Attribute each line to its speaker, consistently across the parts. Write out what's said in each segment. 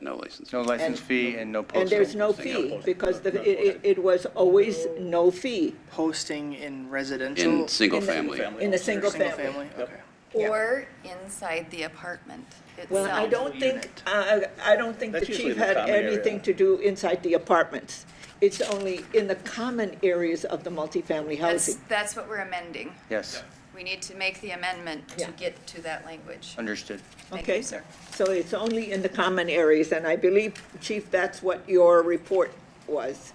Speaker 1: No license.
Speaker 2: No license fee and no posting.
Speaker 3: And there's no
Speaker 1: Posting, yeah,
Speaker 3: fee,
Speaker 1: posting,
Speaker 3: because the, it, it- it was always no fee.
Speaker 4: Posting in residential?
Speaker 1: In single
Speaker 3: in the-
Speaker 1: family.
Speaker 3: In a single
Speaker 4: Single
Speaker 3: family.
Speaker 4: family, okay.
Speaker 3: Yeah.
Speaker 5: Or inside the apartment itself.
Speaker 3: Well, I don't think, I, I don't think the
Speaker 6: That's usually
Speaker 3: chief
Speaker 6: the
Speaker 3: had
Speaker 6: common area.
Speaker 3: anything to do inside the apartments. It's only in the common areas of the multifamily
Speaker 5: That's,
Speaker 3: housing.
Speaker 5: that's what we're amending.
Speaker 2: Yes,
Speaker 5: We need to make the amendment to
Speaker 3: Yeah.
Speaker 5: get to that language.
Speaker 2: understood.
Speaker 5: Thank
Speaker 3: Okay,
Speaker 5: you, sir.
Speaker 3: So it's only in the common areas, and I believe, chief, that's what your report was.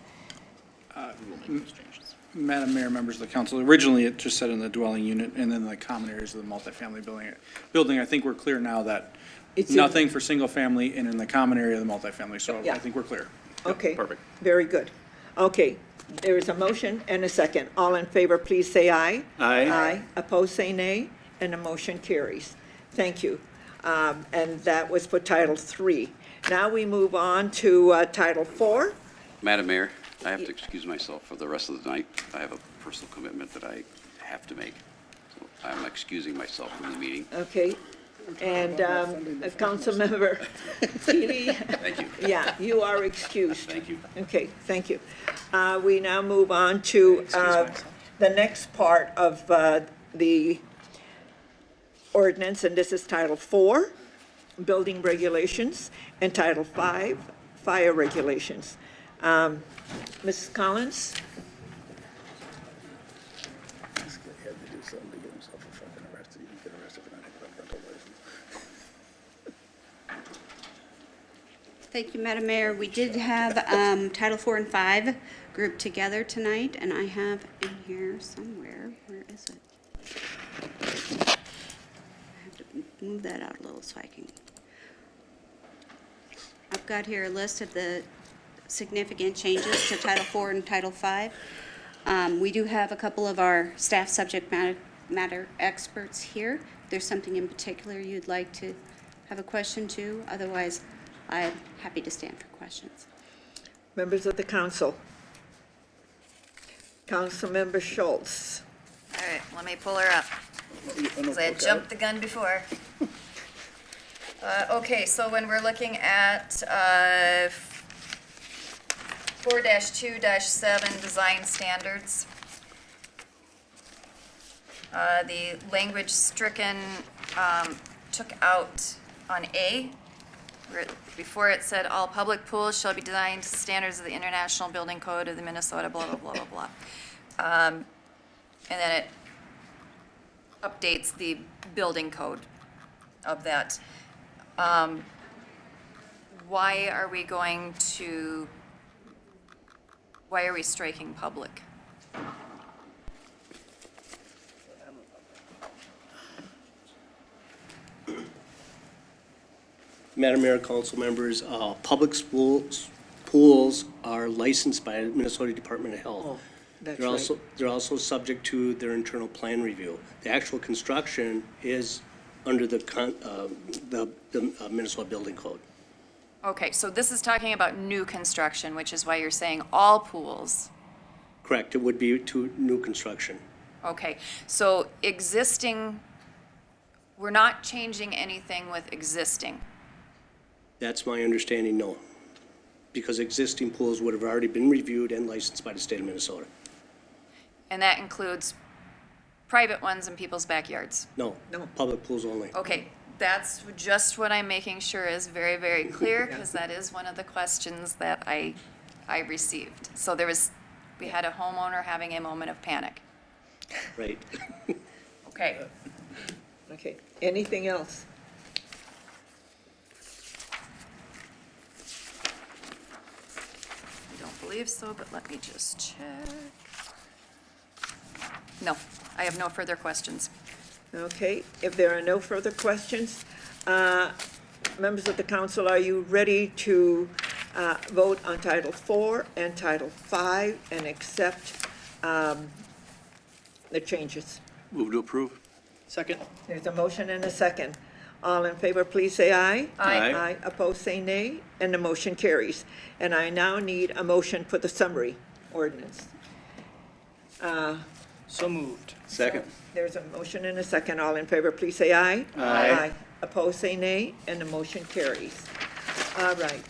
Speaker 7: Madam Mayor, members of the council, originally it just said in the dwelling unit and then the common areas of the multifamily building. Building, I think we're clear now that
Speaker 3: It's in-
Speaker 7: nothing for single family and in the common area of the multifamily, so
Speaker 3: Yeah.
Speaker 7: I think we're clear.
Speaker 3: Okay.
Speaker 7: perfect.
Speaker 3: Very good. Okay, there is a motion and a second. All in favor, please say aye.
Speaker 6: Aye.
Speaker 3: Aye. Opposed, say nay, and the motion carries. Thank you. Um, And that was for Title Three. Now we move on to uh, Title Four.
Speaker 1: Madam Mayor, I have to excuse myself for the rest of the night. I have a personal commitment that I have to make. So I'm excusing myself from the meeting.
Speaker 3: Okay, and um, uh, Councilmember Keely,
Speaker 1: Thank you.
Speaker 3: yeah, you are excused.
Speaker 1: Thank you.
Speaker 3: Okay, thank you. Uh, We now move on to uh, the next part of uh, the ordinance, and this is Title Four, Building Regulations, and Title Five, Fire Regulations. Um, Mrs. Collins?
Speaker 6: This guy had to do something to get himself a fucking arrested. He didn't get arrested for not having a rental license.
Speaker 8: Thank you, Madam Mayor. We did have um, Title Four and Five grouped together tonight, and I have in here somewhere, where is it? I have to move that out a little so I can. I've got here a list of the significant changes to Title Four and Title Five. Um, We do have a couple of our staff subject matter- matter experts here. If there's something in particular you'd like to have a question to, otherwise I'm happy to stand for questions.
Speaker 3: Members of the council. Councilmember Schultz.
Speaker 5: All right, let me pull her up, because I had jumped the gun before. Uh, Okay, so when we're looking at uh, four two seven, design standards, uh, the language stricken um, took out on A, where it- before it said, "All public pools shall be designed to standards of the International Building Code of the Minnesota," blah, blah, blah, blah, blah. Um, And then it updates the building code of that. Um, Why are we going to, why are we striking public?
Speaker 9: Madam Mayor, council members, uh, public schools, pools are licensed by Minnesota Department of Health.
Speaker 3: Oh, that's
Speaker 9: They're
Speaker 3: right.
Speaker 9: also, they're also subject to their internal plan review. The actual construction is under the con, uh, the, the uh, Minnesota Building Code.
Speaker 5: Okay, so this is talking about new construction, which is why you're saying all pools.
Speaker 9: Correct, it would be to new construction.
Speaker 5: Okay, so existing, we're not changing anything with existing.
Speaker 9: That's my understanding, no. Because existing pools would have already been reviewed and licensed by the state of Minnesota.
Speaker 5: And that includes private ones in people's backyards.
Speaker 9: No.
Speaker 3: No.
Speaker 9: Public pools only.
Speaker 5: Okay, that's just what I'm making sure is very, very clear, because that is one of the questions that I, I received. So there was, we had a homeowner having a moment of panic.
Speaker 9: Right.
Speaker 5: Okay.
Speaker 3: Okay, anything else?
Speaker 5: I don't believe so, but let me just check. No, I have no further questions.
Speaker 3: Okay, if there are no further questions, uh, members of the council, are you ready to uh, vote on Title Four and Title Five and accept um, the changes?
Speaker 1: Move to approve.
Speaker 4: Second?
Speaker 3: There's a motion and a second. All in favor, please say aye.
Speaker 5: Aye.
Speaker 3: Aye, opposed, say nay, and the motion carries. And I now need a motion for the summary ordinance.
Speaker 4: So moved.
Speaker 6: Second.
Speaker 3: There's a motion and a second. All in favor, please say aye. Aye. Opposed, say nay, and the motion carries. All right.